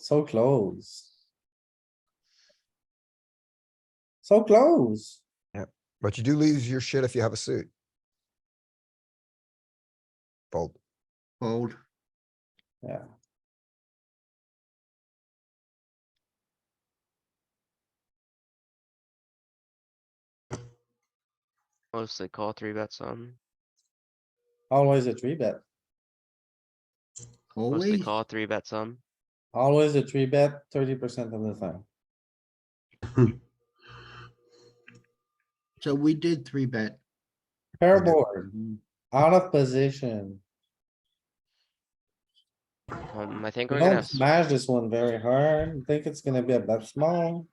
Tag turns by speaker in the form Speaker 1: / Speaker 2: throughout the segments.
Speaker 1: So close. So close.
Speaker 2: But you do lose your shit if you have a suit. Fold.
Speaker 3: Fold.
Speaker 1: Yeah.
Speaker 4: Mostly call three bets on,
Speaker 1: Always a three bet.
Speaker 4: mostly
Speaker 3: Holy,
Speaker 4: call three bets on.
Speaker 1: Always a three bet thirty percent of the time.
Speaker 3: so we did three bet.
Speaker 1: Pair board, out of position.
Speaker 4: Um, I think
Speaker 5: Oh,
Speaker 1: We
Speaker 4: we're gonna,
Speaker 1: Don't
Speaker 4: have s-
Speaker 1: smash this one very hard. Think it's gonna be a bet small.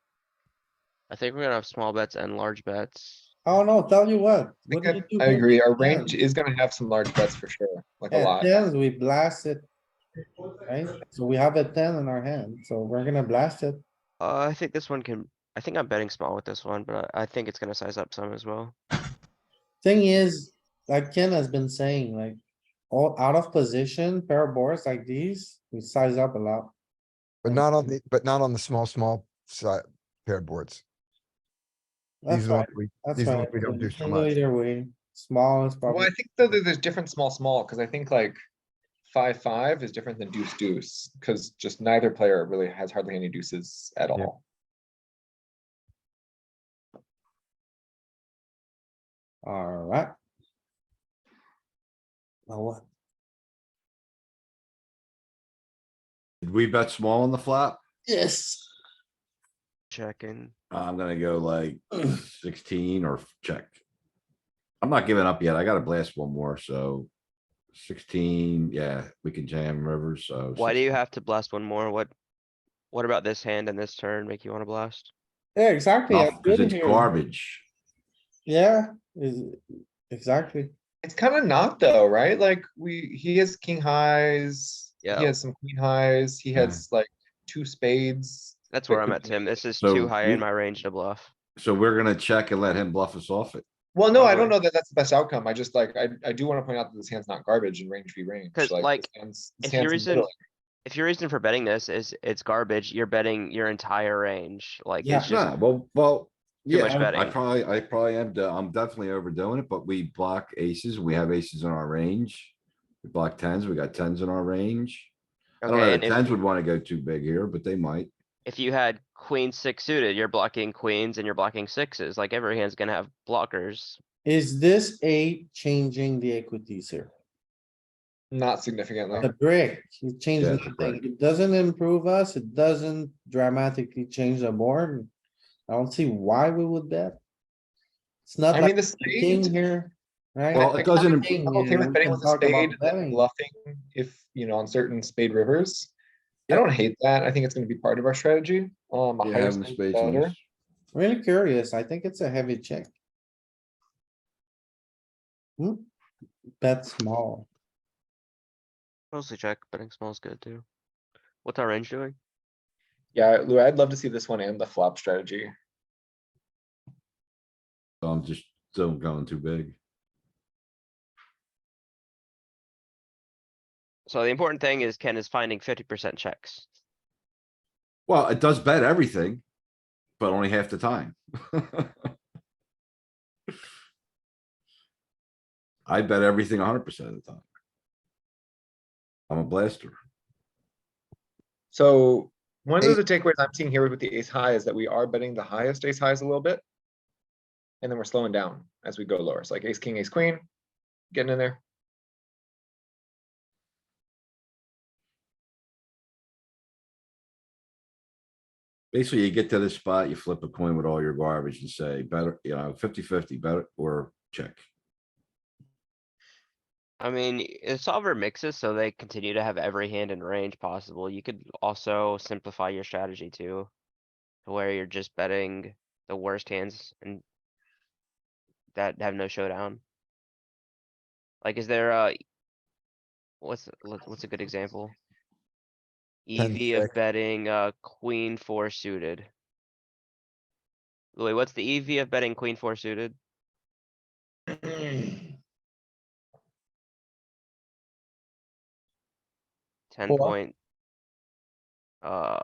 Speaker 4: I think we're gonna have small bets and large bets.
Speaker 1: I don't know, tell you what.
Speaker 5: I
Speaker 1: what
Speaker 5: think
Speaker 1: do
Speaker 5: I,
Speaker 1: you do
Speaker 5: I
Speaker 1: when
Speaker 5: agree. Our
Speaker 1: it's
Speaker 5: range
Speaker 1: ten?
Speaker 5: is gonna have some large bets for sure, like a
Speaker 1: At
Speaker 5: lot.
Speaker 1: tens, we blast it. Right? So we have a ten in our hand, so we're gonna blast it.
Speaker 4: Uh, I think this one can, I think I'm betting small with this one, but I I think it's gonna size up some as well.
Speaker 1: Thing is, like Ken has been saying, like, all out of position pair of boards like these, we size up a lot.
Speaker 2: But not on the, but not on the small, small side pair boards.
Speaker 1: That's
Speaker 2: These
Speaker 1: right,
Speaker 2: are what we,
Speaker 1: that's
Speaker 2: these are
Speaker 1: right.
Speaker 2: what we don't do so
Speaker 1: Can go
Speaker 2: much.
Speaker 1: Either way, small is
Speaker 5: Well,
Speaker 1: probably,
Speaker 5: I think though that there's different small, small, because I think like five, five is different than deuce, deuce, because just neither player really has hardly any deuces at
Speaker 2: Yeah.
Speaker 5: all.
Speaker 1: alright. Now what?
Speaker 6: Did we bet small on the flop?
Speaker 1: Yes.
Speaker 4: Checking.
Speaker 6: I'm gonna go like sixteen or check. I'm not giving up yet. I gotta blast one more, so sixteen, yeah, we can jam rivers, so.
Speaker 4: Why do you have to blast one more? What? What about this hand and this turn make you wanna blast?
Speaker 1: Yeah, exactly. I'm
Speaker 6: Cause
Speaker 1: good
Speaker 6: it's
Speaker 1: here.
Speaker 6: garbage.
Speaker 1: Yeah, is, exactly.
Speaker 5: It's kind of not though, right? Like we, he has king highs, he
Speaker 4: Yeah.
Speaker 5: has some queen highs, he
Speaker 6: Yeah.
Speaker 5: has like two spades.
Speaker 4: That's where
Speaker 5: That
Speaker 4: I'm
Speaker 5: could
Speaker 4: at,
Speaker 5: be-
Speaker 4: Tim. This is
Speaker 6: So
Speaker 4: too high
Speaker 6: you-
Speaker 4: in my range to bluff.
Speaker 6: So we're gonna check and let him bluff us off it.
Speaker 5: Well, no, I
Speaker 4: Probably.
Speaker 5: don't know that that's the best outcome. I just like, I, I do want to point out that this hand's not garbage in range v range.
Speaker 4: 'Cause, like,
Speaker 5: this hand's- this
Speaker 4: if your
Speaker 5: hand's
Speaker 4: reason-
Speaker 5: middling.
Speaker 4: If your reason for betting this is it's garbage, you're betting your entire range. Like
Speaker 1: Yeah.
Speaker 4: it's
Speaker 6: Yeah,
Speaker 4: just
Speaker 6: well, well, yeah,
Speaker 4: much
Speaker 6: I'm- I
Speaker 4: betting.
Speaker 6: probably, I probably am, do- I'm definitely overdoing it, but we block aces. We have aces in our range. We block tens, we got tens in our range. I don't know,
Speaker 4: okay.
Speaker 6: the
Speaker 4: And if
Speaker 6: tens would wanna go too big here, but they might.
Speaker 4: if you had queen six suited, you're blocking queens and you're blocking sixes, like every hand's gonna have blockers.
Speaker 1: Is this a changing the equities here?
Speaker 5: Not significantly.
Speaker 1: The brick, you change
Speaker 6: Yeah, it's a
Speaker 1: nothing.
Speaker 6: brick.
Speaker 1: It doesn't improve us. It doesn't dramatically change the board. I don't see why we would bet. It's not
Speaker 5: I mean,
Speaker 1: like
Speaker 5: the
Speaker 1: the king
Speaker 5: spade,
Speaker 1: here, right?
Speaker 6: Well,
Speaker 5: I-
Speaker 6: it doesn't, imp-
Speaker 1: King,
Speaker 5: I'm
Speaker 1: you
Speaker 5: okay
Speaker 1: know,
Speaker 5: with betting
Speaker 1: we
Speaker 5: with
Speaker 1: can
Speaker 5: the
Speaker 1: talk about
Speaker 5: spade, and
Speaker 1: betting.
Speaker 5: then bluffing if, you know, on certain spade rivers. I don't hate that. I think it's gonna be part of our strategy. Um, a
Speaker 6: yeah,
Speaker 5: higher
Speaker 6: having
Speaker 5: spade
Speaker 6: spades
Speaker 5: the
Speaker 6: on
Speaker 5: better.
Speaker 6: this.
Speaker 1: Really curious. I think it's a heavy check. Hmm, bet small.
Speaker 4: Mostly check, betting small's good too. What's our range doing?
Speaker 5: Yeah, Lou, I'd love to see this one and the flop strategy.
Speaker 6: So I'm just still going too big.
Speaker 4: So the important thing is Ken is finding fifty percent checks.
Speaker 6: Well, it does bet everything, but only half the time. I bet everything hundred percent of the time. I'm a blaster.
Speaker 5: So one
Speaker 2: Ace-
Speaker 5: of the takeaways I'm seeing here with the ace high is that we are betting the highest ace highs a little bit. And then we're slowing down as we go lower. It's like ace, king, ace, queen, getting in there.
Speaker 6: Basically, you get to this spot, you flip a coin with all your garbage and say better, you know, 50-50, better or check.
Speaker 4: I mean, y- the solver mixes so they continue to have every hand in range possible. You could also simplify your strategy too. To where you're just betting the worst hands and. That have no showdown. Like, is there a? What's, what- what's a good example?
Speaker 2: Ten
Speaker 4: EV of
Speaker 2: six.
Speaker 4: betting, uh, queen four suited. Louis, what's the EV of betting queen four suited? Ten
Speaker 1: Four.
Speaker 4: point Uh.